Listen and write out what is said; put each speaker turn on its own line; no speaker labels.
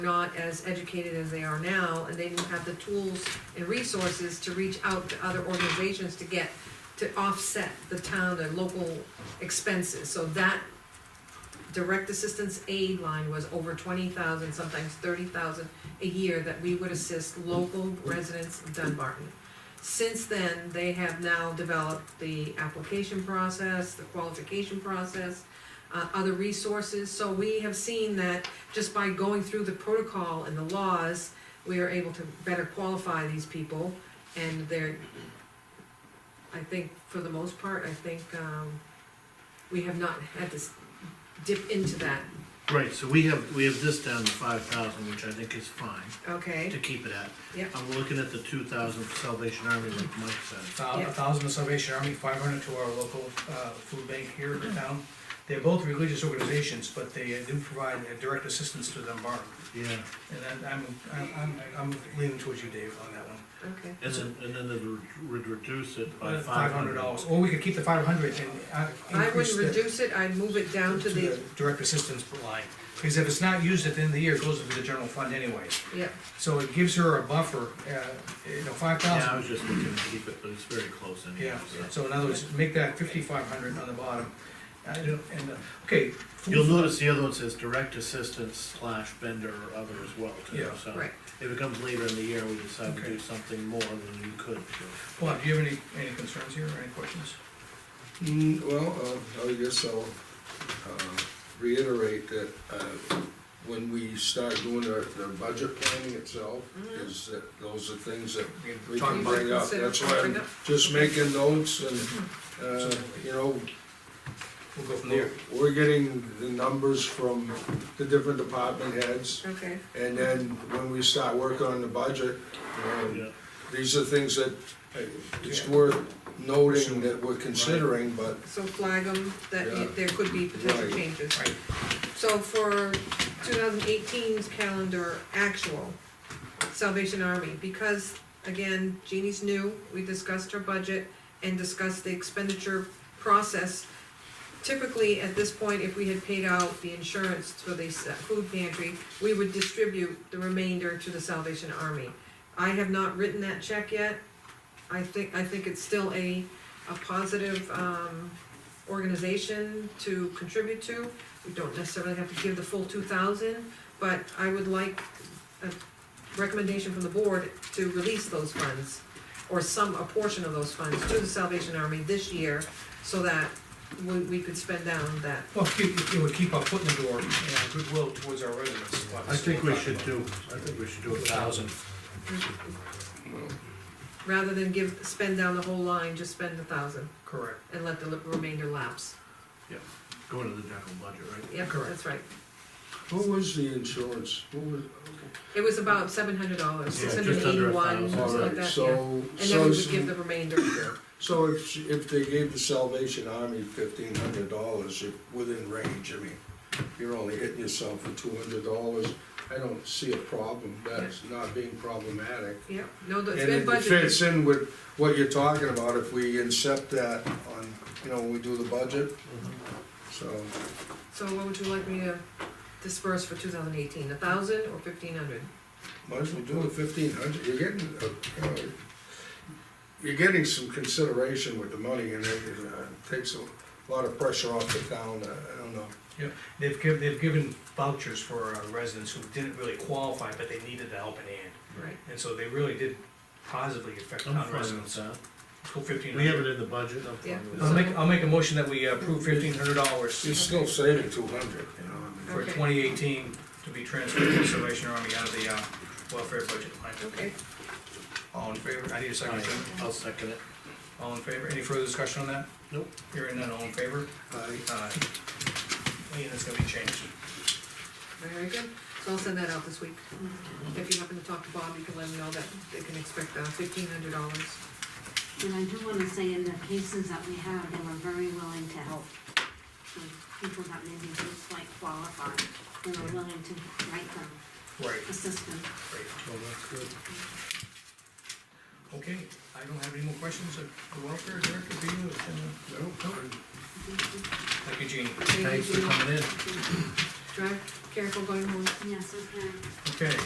not as educated as they are now, and they didn't have the tools and resources to reach out to other organizations to get, to offset the town, the local expenses, so that direct assistance aid line was over twenty thousand, sometimes thirty thousand a year that we would assist local residents of Dunbarton. Since then, they have now developed the application process, the qualification process, uh, other resources, so we have seen that just by going through the protocol and the laws, we are able to better qualify these people, and they're, I think, for the most part, I think, um, we have not had to s- dip into that,
Right, so we have, we have this down to five thousand, which I think is fine to
okay?
keep it at.
Yep.
I'm looking at the two thousand for Salvation Army, like Mike said.
thou-
Yeah.
a thousand to Salvation Army, five hundred to our local, uh, food bank here in town. They're both religious organizations, but they do provide uh, direct assistance to Dunbar.
Yeah.
And I'm- I'm, I'm, I'm, I'm leaning towards you, Dave, on that one.
Okay.
And then, and then it would reduce it by
Five hundred dollars, or we could keep the five hundred and, uh,
I would
increase the.
reduce it, I'd move it down to the,
Direct assistance line, because if it's not used at the end of the year, it goes into the general fund anyway.
yeah,
So it gives her a buffer, uh, you know, five
Yeah, I
thousand.
was just looking to keep it, but it's very close anyhow,
Yeah,
so.
so in other words, make that fifty-five hundred on the bottom. I don't- And, uh, okay. food-
You'll notice the other one says direct assistance slash vendor or other as well too,
Yeah.
so.
Right.
If it comes later in the year, we decide to
Okay.
do something more than you could do.
Bob, do you have any, any concerns here, or any questions?
Mm, well, uh, I guess I'll, uh, reiterate that, uh, when we start doing the, the budget planning itself, is that those are things that
We can Mm-hmm.
we
talk
can
about
bring up,
Consider
that's why
bring
I'm
up.
just making notes and, uh, you know,
We'll go from there.
we're getting the numbers from the different department heads,
okay,
and then when we start working on the budget, um,
Yeah.
these are things that uh, it's worth noting that we're considering, but
so flag them, that
Yeah.
there could be potential
Right.
changes.
Right,
So for 2018's calendar actual, Salvation Army, because, again, Jeannie's new, we discussed her budget and discussed the expenditure process. Typically, at this point, if we had paid out the insurance for the s- food pantry, we would distribute the remainder to the Salvation Army. I have not written that check yet. I think, I think it's still a, a positive, um, organization to contribute to. We don't necessarily have to give the full two thousand, but I would like a recommendation from the board to release those funds, or some, a portion of those funds to the Salvation Army this year, so that we, we could spend down that.
well, keep- it would keep our foot in the door and our goodwill towards our residents.
I think we should do, I think we should do a thousand.
Rather than give, spend down the whole line, just spend a thousand
Correct.
and let the remainder lapse.
Go into the general budget, right?
Yep,
Correct.
that's right.
What was the insurance? What was?
It was about seven hundred dollars,
Yeah,
six
just
hundred
under a
eighty-one,
thousand.
something like
Alright,
that, yeah.
so,
And then we
so,
would give the remainder.
so if, she- if they gave the Salvation Army fifteen hundred dollars, you're within range, I mean, you're only hitting yourself for two hundred dollars, I don't see a problem, that's not being problematic.
Yeah, no, it's
And
been
it
budgeted.
fits in with what you're talking about, if we incept that on, you know, when we do the budget,
Mm-hmm.
so,
So what would you like me to disperse for two thousand eighteen, a thousand or fifteen hundred?
might as well do the fifteen hundred, you're getting, uh, you know, you're getting some consideration with the money, and it uh, takes a lot of pressure off the town, uh, I don't know.
They've given, they've given vouchers for uh, residents who didn't really qualify, but they needed the helping hand.
Right.
And so they really did positively affect
I'm
town
fine with
residents.
that.
Go fifteen
We have
hundred.
it in the budget, I'm
Yeah.
fine with
I'll
that.
make, I'll make a motion that we approve fifteen hundred
You're
dollars
still saving two hundred, you know, I mean,
for
Okay.
twenty eighteen to be transferred to the Salvation Army out of the, uh, welfare budget line.
Okay,
All in favor? I need a second. Jim.
Aye, I'll second it.
All in favor? Any further discussion on that?
Nope.
Hearing none, all in favor?
I-
Aye. Lean, it's gonna be changed.
very good. So I'll send that out this week. If you happen to talk to Bob, you can let him know that they can expect uh, fifteen hundred dollars.
And I do wanna say in the cases that we have, they were very willing to help. The people that maybe didn't quite qualify, they were willing to write them,
Right,
assist them.
right.
Well, that's good.
Okay, I don't have any more questions of the welfare director, do you? Uh,
no, I-
Thank you, Jean.
Thanks for coming in.
drive careful going home.
Yes, okay.
Okay.